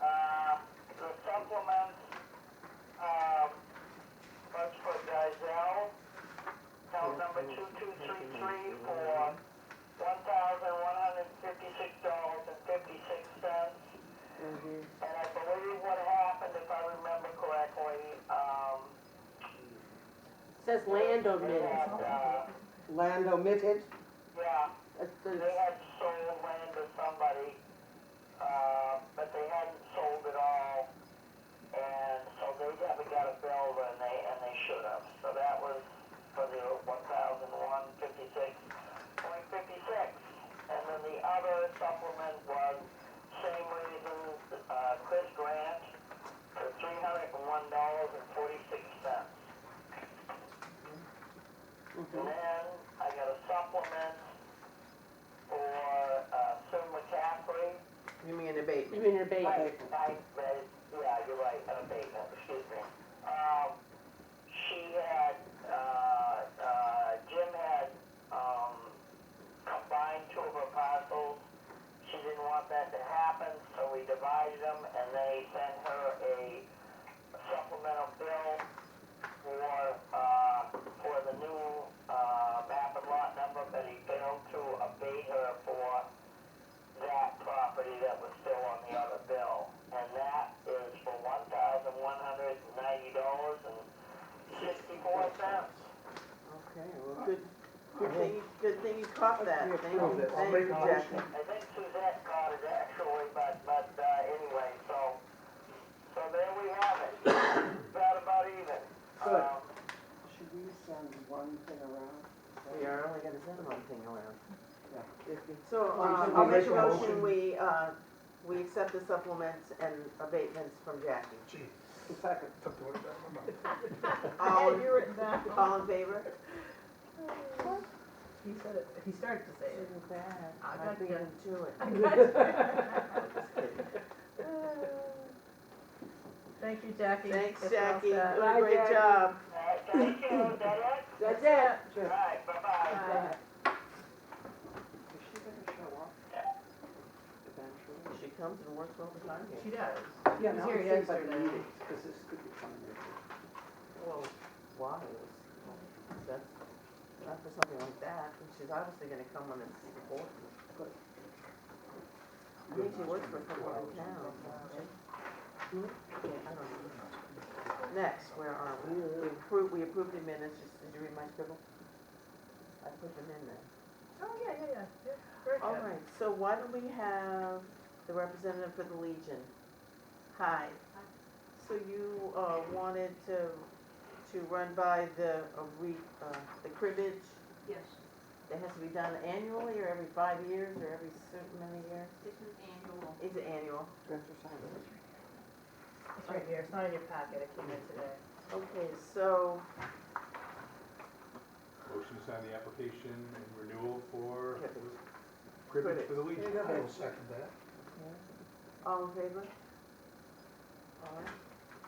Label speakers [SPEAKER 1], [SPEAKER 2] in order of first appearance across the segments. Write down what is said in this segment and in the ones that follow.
[SPEAKER 1] Um,
[SPEAKER 2] Mm-hmm.
[SPEAKER 1] And I believe what happened, if I remember correctly, um,
[SPEAKER 2] Says land
[SPEAKER 1] they
[SPEAKER 2] omitted,
[SPEAKER 1] had, uh,
[SPEAKER 3] Land omitted,
[SPEAKER 1] yeah,
[SPEAKER 2] that's
[SPEAKER 1] they
[SPEAKER 2] the,
[SPEAKER 1] had sold land to somebody, uh, but they hadn't sold it all. And so they haven't got a bill and they, and they should have. So that was for the one thousand one fifty-six point fifty-six. And then the other supplement was same reason, uh, Chris Grant for three hundred and one dollars and forty-six cents. And
[SPEAKER 2] mm-hmm.
[SPEAKER 1] then I got a supplement for, uh, Sue McCaffrey.
[SPEAKER 4] You mean abatement?
[SPEAKER 2] you mean your bait,
[SPEAKER 1] Right, right, right, yeah, you're right, an abatement, excuse me. Um, she had, uh, uh, Jim had, um, combined two of her parcels. She didn't want that to happen, so we divided them and they sent her a supplemental bill for, uh, for the new, uh, map and lot number, but he failed to abate her for that property that was still on the other bill. And that is for one thousand one hundred and ninety dollars and sixty-four cents.
[SPEAKER 4] Okay, well, good, good thing, you- good thing you caught that,
[SPEAKER 3] We
[SPEAKER 4] thank
[SPEAKER 3] approve
[SPEAKER 4] you,
[SPEAKER 3] it. I'll
[SPEAKER 4] thank
[SPEAKER 3] make
[SPEAKER 4] you,
[SPEAKER 3] a
[SPEAKER 4] Jackie.
[SPEAKER 3] motion.
[SPEAKER 1] I think Suzette caught it actually, but, but, uh, anyway, so, so there we have it. About about even.
[SPEAKER 3] Good.
[SPEAKER 1] Um,
[SPEAKER 3] should we send one thing around?
[SPEAKER 4] We are only gonna send one thing around.
[SPEAKER 3] Yeah.
[SPEAKER 4] If you- So,
[SPEAKER 3] Well,
[SPEAKER 4] uh,
[SPEAKER 3] you
[SPEAKER 4] I'll
[SPEAKER 3] can
[SPEAKER 4] make
[SPEAKER 3] make
[SPEAKER 4] a
[SPEAKER 3] a
[SPEAKER 4] motion,
[SPEAKER 3] motion.
[SPEAKER 4] we, uh, we accept the supplements and abatements from Jackie.
[SPEAKER 3] Second.
[SPEAKER 4] All,
[SPEAKER 5] Had you written that?
[SPEAKER 4] all in favor?
[SPEAKER 5] He said it, he started to say it.
[SPEAKER 4] Isn't bad,
[SPEAKER 5] I
[SPEAKER 4] I
[SPEAKER 5] got
[SPEAKER 4] beat
[SPEAKER 5] you.
[SPEAKER 4] him to it. Just kidding.
[SPEAKER 5] Thank you, Jackie.
[SPEAKER 4] Thanks,
[SPEAKER 5] It's all
[SPEAKER 4] Jackie, you
[SPEAKER 5] set.
[SPEAKER 4] did a great
[SPEAKER 1] all
[SPEAKER 4] job.
[SPEAKER 1] right, uh, thank you, is that it?
[SPEAKER 2] that's it.
[SPEAKER 1] All
[SPEAKER 3] Just,
[SPEAKER 1] right, bye-bye.
[SPEAKER 5] Bye.
[SPEAKER 3] is she gonna show up eventually?
[SPEAKER 4] She comes and works all the time
[SPEAKER 5] She
[SPEAKER 4] here.
[SPEAKER 5] does.
[SPEAKER 3] Yeah,
[SPEAKER 5] was
[SPEAKER 3] now
[SPEAKER 5] here
[SPEAKER 3] it seems like
[SPEAKER 5] yesterday.
[SPEAKER 3] meetings, because this could be fun.
[SPEAKER 4] Well, why is, that's, not for something like that, and she's obviously gonna come when it's important. I think she works for someone in town, doesn't she? Yeah, I don't know. Next, where are we? We approved, we approved the minutes, Just- did you read my scribble? I put them in there.
[SPEAKER 5] Oh, yeah, yeah, yeah, yeah, very
[SPEAKER 4] All
[SPEAKER 5] good.
[SPEAKER 4] right, so why don't we have the representative for the Legion? Hi. So you uh, wanted to, to run by the, uh, re- uh, the cribbage
[SPEAKER 6] Yes,
[SPEAKER 4] that has to be done annually or every five years or every certain many years?
[SPEAKER 6] this is annual.
[SPEAKER 4] Is it annual?
[SPEAKER 5] It's right here, it's not in your packet, it came in today.
[SPEAKER 4] Okay, so
[SPEAKER 7] Motion to sign the application and renewal for
[SPEAKER 4] Cribbage.
[SPEAKER 7] cribbage for the Legion.
[SPEAKER 4] I'll
[SPEAKER 7] second that.
[SPEAKER 4] all in favor? All right.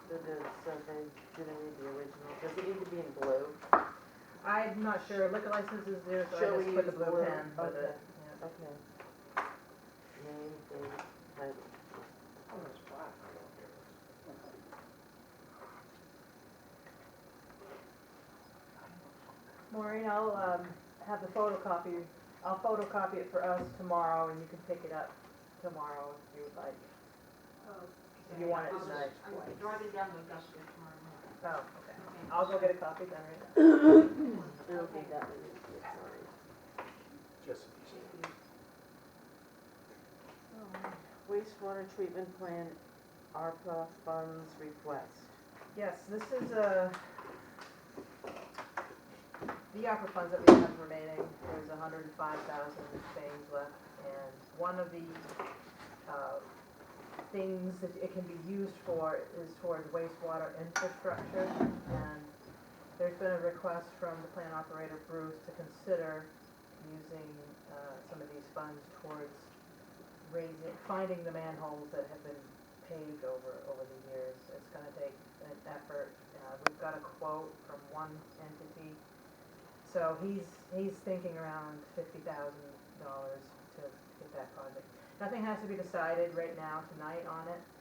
[SPEAKER 4] So the, so they didn't need the original. Does it need to be in blue?
[SPEAKER 5] I'm not sure, liquor license is there, so
[SPEAKER 4] Shall
[SPEAKER 5] I just
[SPEAKER 4] we
[SPEAKER 5] put the
[SPEAKER 4] use
[SPEAKER 5] blue
[SPEAKER 4] blue?
[SPEAKER 5] pen for the,
[SPEAKER 4] Okay.
[SPEAKER 5] yeah.
[SPEAKER 4] Okay. Name, date, title.
[SPEAKER 3] Oh, it's black.
[SPEAKER 5] Maureen, I'll, um, have the photocopy, I'll photocopy it for us tomorrow, and you can pick it up tomorrow if you would like.
[SPEAKER 6] Okay.
[SPEAKER 5] You want it
[SPEAKER 6] uh, I'll just-
[SPEAKER 5] tonight,
[SPEAKER 6] I'm
[SPEAKER 5] twice.
[SPEAKER 6] driving down to Augusta tomorrow morning.
[SPEAKER 5] Oh, okay.
[SPEAKER 6] Okay.
[SPEAKER 5] I'll go get a copy then, right?
[SPEAKER 4] It'll be
[SPEAKER 6] Okay.
[SPEAKER 4] that many, it's already.
[SPEAKER 6] Oh,
[SPEAKER 4] Wastewater treatment plant, ARPA funds request.
[SPEAKER 5] Yes, this is uh the opera funds that we have remaining, there's a hundred and five thousand things left, and one of the, uh, things that it can be used for is towards wastewater infrastructure, and there's been a request from the plant operator Bruce to consider using, uh, some of these funds towards raising, finding the manholes that have been paved over, over the years. It's gonna take an effort. Uh, we've got a quote from one entity. So he's, he's thinking around fifty thousand dollars to get that project. Nothing has to be decided right now tonight on it.